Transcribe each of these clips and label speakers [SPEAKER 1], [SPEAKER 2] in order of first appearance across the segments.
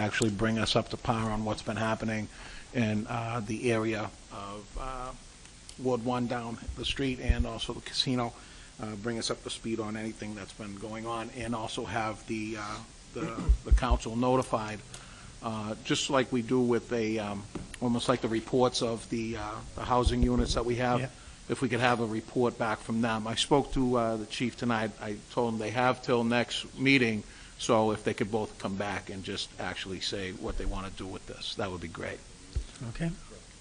[SPEAKER 1] actually bring us up to par on what's been happening in uh, the area of uh, Ward 1 down the street and also the casino, uh, bring us up to speed on anything that's been going on, and also have the, uh, the the council notified, uh, just like we do with a, um, almost like the reports of the uh, the housing units that we
[SPEAKER 2] Yeah.
[SPEAKER 1] have, if we could have a report back from them. I spoke to uh, the chief tonight, I told him they have till next meeting, so if they could both come back and just actually say what they want to do with this, that would be great.
[SPEAKER 2] Okay,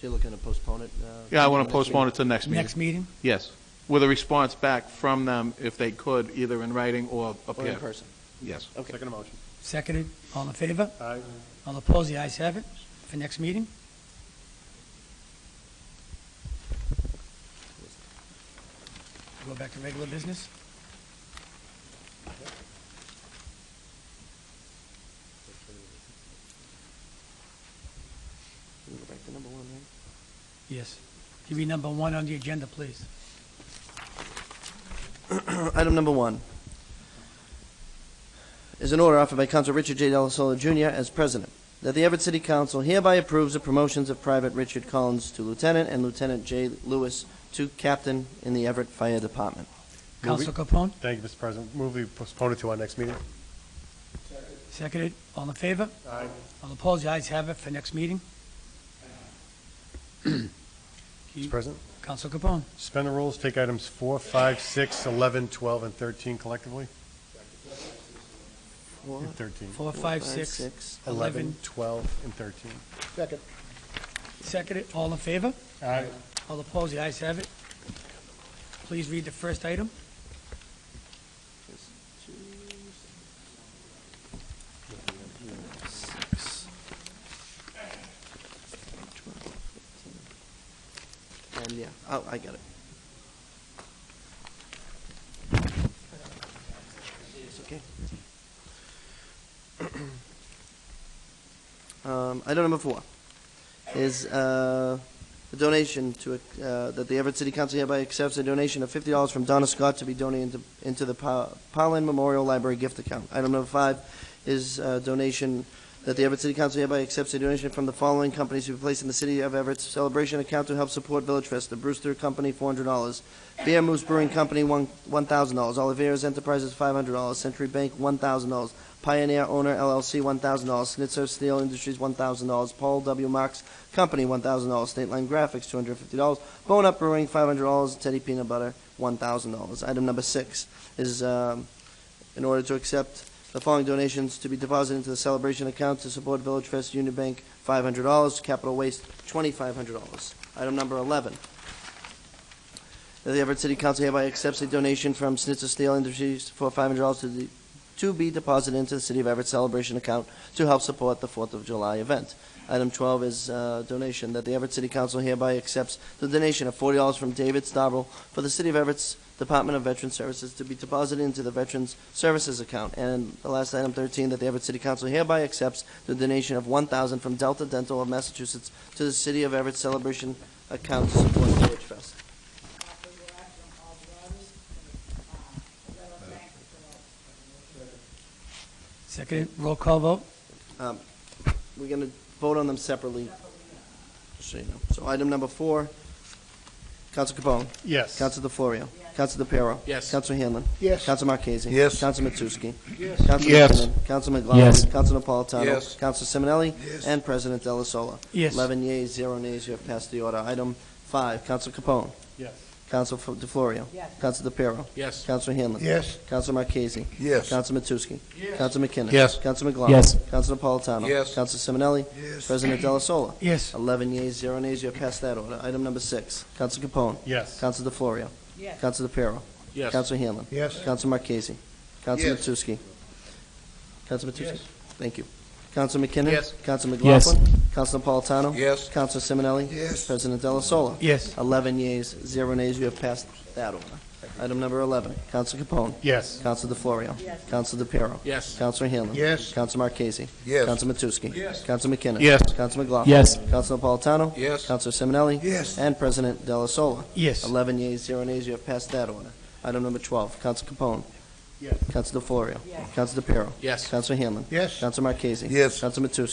[SPEAKER 3] You're looking to postpone it? uh,
[SPEAKER 1] Yeah, I want to
[SPEAKER 3] next
[SPEAKER 1] postpone it
[SPEAKER 3] meeting?
[SPEAKER 1] to the next meeting.
[SPEAKER 2] next meeting?
[SPEAKER 1] Yes, with a response back from them if they could, either in writing or up
[SPEAKER 3] Or
[SPEAKER 1] here.
[SPEAKER 3] in person?
[SPEAKER 1] Yes.
[SPEAKER 3] Okay. Second motion.
[SPEAKER 2] Seconded, all in favor? Aye. All opposed, the ayes have it, for next meeting? Go back to regular business?
[SPEAKER 3] We go back to number one, right?
[SPEAKER 2] Yes. Give me number one on the agenda, please.
[SPEAKER 3] Item number one is an order offered by Council Richard J. Delasola Jr. as president, that the Everett City Council hereby approves the promotions of Private Richard Collins to Lieutenant and Lieutenant J. Lewis to Captain in the Everett Fire Department.
[SPEAKER 4] Move it.
[SPEAKER 2] Council Capone,
[SPEAKER 4] Thank you, Mr. President. Move we postpone it to our next meeting.
[SPEAKER 2] seconded, all in favor?
[SPEAKER 4] Aye.
[SPEAKER 2] All opposed, the ayes have it, for next meeting?
[SPEAKER 4] Mr. President,
[SPEAKER 2] Council Capone,
[SPEAKER 4] suspend the rules, take items four, five, six, 11, 12, and 13 collectively.
[SPEAKER 3] Four,
[SPEAKER 4] And 13.
[SPEAKER 2] four, five, six,
[SPEAKER 3] six,
[SPEAKER 2] 11,
[SPEAKER 4] 12, and 13. Second.
[SPEAKER 2] seconded, all in favor?
[SPEAKER 4] Aye.
[SPEAKER 2] All opposed, the ayes have it. Please read the first item.
[SPEAKER 3] six. And, yeah, oh, I got it. It's okay. Um, item number four is, uh, the donation to, uh, that the Everett City Council hereby accepts a donation of fifty dollars from Donna Scott to be donated to- into the Pa- Pollen Memorial Library gift account. Item number five is a donation that the Everett City Council hereby accepts a donation from the following companies to be placed in the City of Everett's Celebration Account to help support Village Fest. The Brewster Company, four hundred dollars. Beer Moose Brewing Company, one, one thousand dollars. Oliveras Enterprises, five hundred dollars. Century Bank, one thousand dollars. Pioneer Owner LLC, one thousand dollars. Snitzer Steel Industries, one thousand dollars. Paul W. Marks Company, one thousand dollars. State Line Graphics, two hundred fifty dollars. Bone Up Brewing, five hundred dollars. Teddy Peanut Butter, one thousand dollars. Item number six is, um, in order to accept the following donations to be deposited into the celebration account to support Village Fest Union Bank, five hundred dollars. Capital Waste, twenty-five hundred dollars. Item number eleven. That the Everett City Council hereby accepts a donation from Snitzer Steel Industries for five hundred dollars to the, to be deposited into the City of Everett Celebration Account to help support the Fourth of July event. Item twelve is, uh, donation, that the Everett City Council hereby accepts the donation of forty dollars from David Stavril for the City of Everett's Department of Veteran Services to be deposited into the Veterans Services account. And the last item, 13, that the Everett City Council hereby accepts the donation of 1000 from Delta Dental of Massachusetts to the City of Everett Celebration account to support Village Fest.
[SPEAKER 2] Seconded, roll call vote.
[SPEAKER 3] We're going to vote on them separately, just so you know. So item number four, Council Capone.
[SPEAKER 4] Yes.
[SPEAKER 3] Council DeFlorio. Council DePiero.
[SPEAKER 1] Yes.
[SPEAKER 3] Council Hanlon.
[SPEAKER 4] Yes.
[SPEAKER 3] Council Marquez.
[SPEAKER 5] Yes.
[SPEAKER 3] Council Matusky.
[SPEAKER 4] Yes.
[SPEAKER 3] Council
[SPEAKER 1] Yes.
[SPEAKER 3] McKinnon. Council McLaughlin.
[SPEAKER 2] Yes.
[SPEAKER 3] Council Napolitano.
[SPEAKER 5] Yes.
[SPEAKER 3] Council Simonelli.
[SPEAKER 5] Yes.
[SPEAKER 3] And President Delasola.
[SPEAKER 2] Yes.
[SPEAKER 3] Eleven yeas, zero nays. You have passed the order. Item five, Council Capone.
[SPEAKER 4] Yes.
[SPEAKER 3] Council DeFlorio. Yes. Council DePiero.
[SPEAKER 1] Yes.
[SPEAKER 3] Council Hanlon.
[SPEAKER 5] Yes.
[SPEAKER 3] Council Marquez.
[SPEAKER 5] Yes.
[SPEAKER 3] Council Matusky. Yes. Council McKinnon.
[SPEAKER 5] Yes.
[SPEAKER 3] Council McLaughlin.
[SPEAKER 2] Yes.
[SPEAKER 3] Council Napolitano.
[SPEAKER 5] Yes.
[SPEAKER 3] Council Simonelli.
[SPEAKER 5] Yes.
[SPEAKER 3] President Delasola.
[SPEAKER 2] Yes.
[SPEAKER 3] Eleven yeas, zero nays. You have passed that order. Item number six, Council Capone.
[SPEAKER 4] Yes.
[SPEAKER 3] Council DeFlorio. Yes. Council DePiero.
[SPEAKER 1] Yes.
[SPEAKER 3] Council Hanlon.
[SPEAKER 5] Yes.
[SPEAKER 3] Council Marquez. Council
[SPEAKER 5] Yes.
[SPEAKER 3] Matusky. Council Matusky.
[SPEAKER 5] Yes.
[SPEAKER 3] Thank you. Council McKinnon.
[SPEAKER 1] Yes.
[SPEAKER 3] Council McLaughlin. Council Napolitano.
[SPEAKER 5] Yes.
[SPEAKER 3] Council Simonelli.
[SPEAKER 5] Yes.
[SPEAKER 3] President Delasola.
[SPEAKER 2] Yes.
[SPEAKER 3] Eleven yeas, zero nays. You have passed that order. Item number eleven, Council Capone.
[SPEAKER 4] Yes.
[SPEAKER 3] Council DeFlorio. Yes. Council DePiero.
[SPEAKER 1] Yes.
[SPEAKER 3] Council Hanlon.
[SPEAKER 5] Yes.
[SPEAKER 3] Council Marquez.
[SPEAKER 5] Yes.
[SPEAKER 3] Council Matusky.
[SPEAKER 5] Yes.
[SPEAKER 3] Council McKinnon.
[SPEAKER 4] Yes.
[SPEAKER 3] Council McLaughlin. Yes. Council Napolitano.
[SPEAKER 5] Yes.
[SPEAKER 3] Council Simonelli.
[SPEAKER 5] Yes.
[SPEAKER 3] And President Delasola.
[SPEAKER 2] Yes.
[SPEAKER 3] 11 yeas, 0 nays, you have passed that order. Item number 12, Council Capone.
[SPEAKER 4] Yes.
[SPEAKER 3] Council DeFlorio. Yes. Council DePiero.
[SPEAKER 1] Yes.
[SPEAKER 3] Council Hanlon.
[SPEAKER 5] Yes.
[SPEAKER 3] Council Marquez.
[SPEAKER 5] Yes.
[SPEAKER 3] Council Matusky.